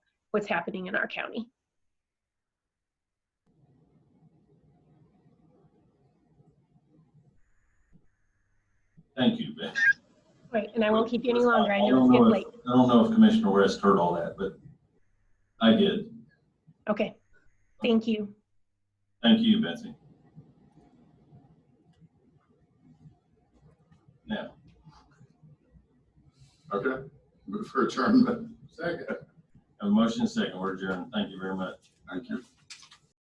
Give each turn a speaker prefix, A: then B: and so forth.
A: what's happening in our county.
B: Thank you, Beth.
A: Right, and I won't keep you any longer. I
B: I
A: know
B: don't
A: it's
B: know
A: getting
B: if-
A: late.
B: I don't know if Commissioner West heard all that, but I did.
A: Okay. Thank you.
B: Thank you, Betsy. Now,
C: Okay, move for adjournment. Second.
B: a motion second, we're adjourned. Thank you very much.
C: Thank you.